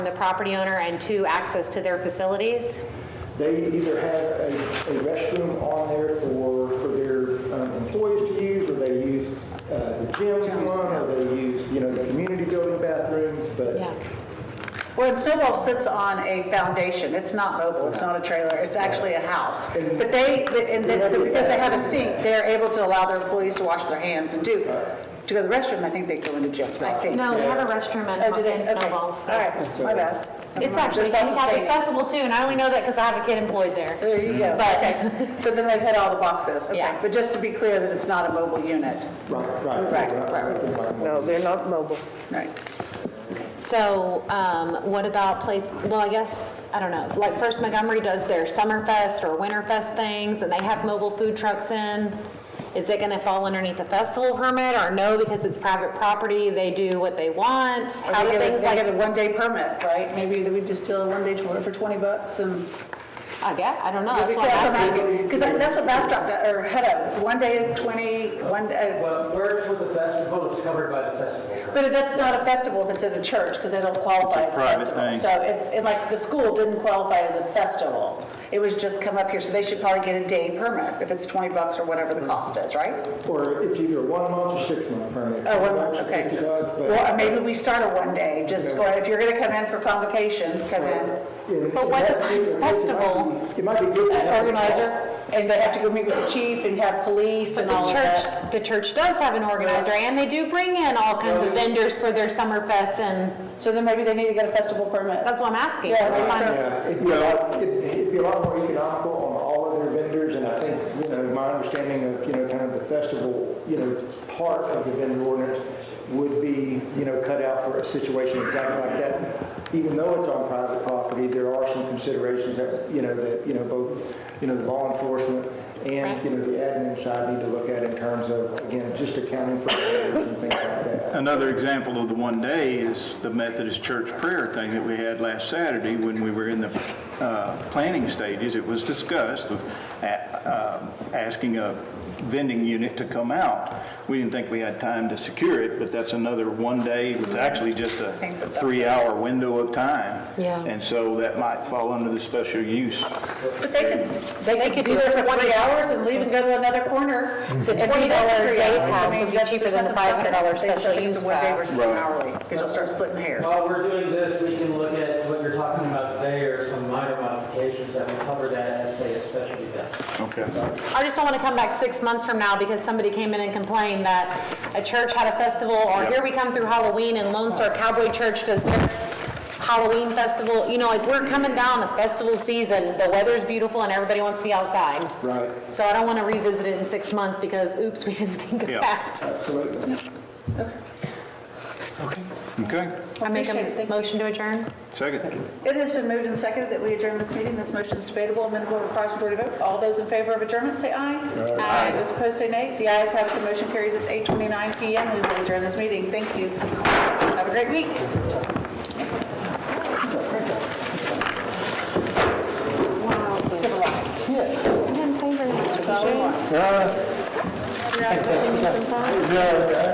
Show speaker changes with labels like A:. A: from the property owner, and two, access to their facilities?
B: They either have a a restroom on there for, for their um, employees to use, or they use uh, the gym's one, or they use, you know, the community building bathrooms, but
A: Yeah.
C: Well, and Snowball sits on a foundation. It's not mobile, it's not a trailer, it's actually a house. But they, and then, so because they have a sink, they're able to allow their employees to wash their hands and do, to go to the restroom, I think they go into gyms, I think.
A: No, they have a restroom
C: Oh, do
A: and
C: they?
A: and
C: Okay.
A: snowballs. so-
C: All right, my bad.
A: It's actually handicap accessible too, and I only know that because I have a kid employed there.
C: There you go.
A: But-
C: Okay. So then they've hit all the boxes, okay.
A: Yeah.
C: But just to be clear that it's not a mobile unit,
B: Right, right.
C: Right,
B: Not-
C: right,
B: not- not-
D: No, they're not mobile.
C: right?
A: So um, what about place, well, I guess, I don't know, like First Montgomery does their Summerfest or Winterfest things, and they have mobile food trucks in. Is it going to fall underneath the festival permit, or no, because it's private property, they do what they want? How do
C: They get a-
A: things
C: They
A: like,
C: get a one-day permit, right? Maybe that we just do a one-day tour for 20 bucks and
A: I guess, I don't know,
C: Yeah,
A: that's
C: That's
A: why I'm
C: what
A: asking.
C: Because that's what Bastrop, do- or Hutto, one day is 20, one, uh,
E: Well, where it's with the festival, it's covered by the festival.
C: but that's not a festival if it's at a church, because they don't qualify as a
F: private
C: festival.
F: thing.
C: So it's, and like, the school didn't qualify as a festival. It was just come up here, so they should probably get a day permit, if it's 20 bucks or whatever the cost is, right?
B: Or it's either a one month or six month permit.
C: Oh, one month,
B: Bucks or
C: okay.
B: Fifty bucks, but.
C: Well, or maybe we start a one day, just for, if you're going to come in for convocation, come in.
B: And-
A: But
B: and
A: what
B: that-
A: if
B: it-
A: it's
B: it might be-
A: festival?
B: It might be good. to have-
C: Organizer, and they have to go meet with the chief and have police
A: But
C: and
A: the
C: all of that.
A: church, the church does have an organizer, and they do bring in all kinds of vendors for their summer fest, and
C: So then maybe they need to get a festival permit.
A: that's what I'm asking.
C: Yeah,
A: That's
C: I
A: why
C: think
A: I'm-
C: so.
B: Yeah, It'd be a lot, it'd it'd be a lot more economical on all of their vendors, and I think, you know, my understanding of, you know, kind of the festival, you know, part of the vendor ordinance would be, you know, cut out for a situation exactly like that. Even though it's on private property, there are some considerations that, you know, that, you know, both, you know, the law enforcement and, you know, the admin side need to look at in terms of, again, just accounting for vendors and things like that.
F: Another example of the one day is the Methodist Church prayer thing that we had last Saturday when we were in the uh, planning stages. It was discussed of a- um, asking a vending unit to come out. We didn't think we had time to secure it, but that's another one day. It's actually just a three-hour window of time.
A: Yeah.
F: And so that might fall under the special use.
C: But they could, they could do it for 20 hours and leave and go to another corner.
A: The
C: And
A: $20
C: do that for three
A: day
C: hours.
A: pass
C: I mean,
A: would be
C: that's-
A: cheaper
C: there's
A: than the $500
C: nothing stopped about it.
A: special
C: They
A: use
C: should have the
A: pass.
C: one day versus hourly, because you'll start splitting hairs.
E: While we're doing this, we can look at what you're talking about today or some minor modifications that will cover that as, say, a special event.
F: Okay.
A: I just don't want to come back six months from now because somebody came in and complained that a church had a festival, or
F: Yep.
A: here we come through Halloween and Lone Star Cowboy Church does their Halloween festival. You know, like, we're coming down the festival season, the weather's beautiful and everybody wants to be outside.
B: Right.
A: So I don't want to revisit it in six months because oops, we didn't think of
F: Yeah.
A: that.
B: Absolutely.
F: Okay.
A: I make
C: Appreciate it.
A: a
C: Thank you.
A: motion to adjourn?
F: Second.
C: It has been moved and seconded that we adjourn this meeting. This motion is debatable, amendable, and requires majority vote. All those in favor of adjournment, say aye. Aye. Those opposed, say nay. The ayes have it, the motion carries. It's 8:29 PM. We will adjourn this meeting. Thank you. Have a great week.
A: Civilized. I didn't say very much. Appreciate it.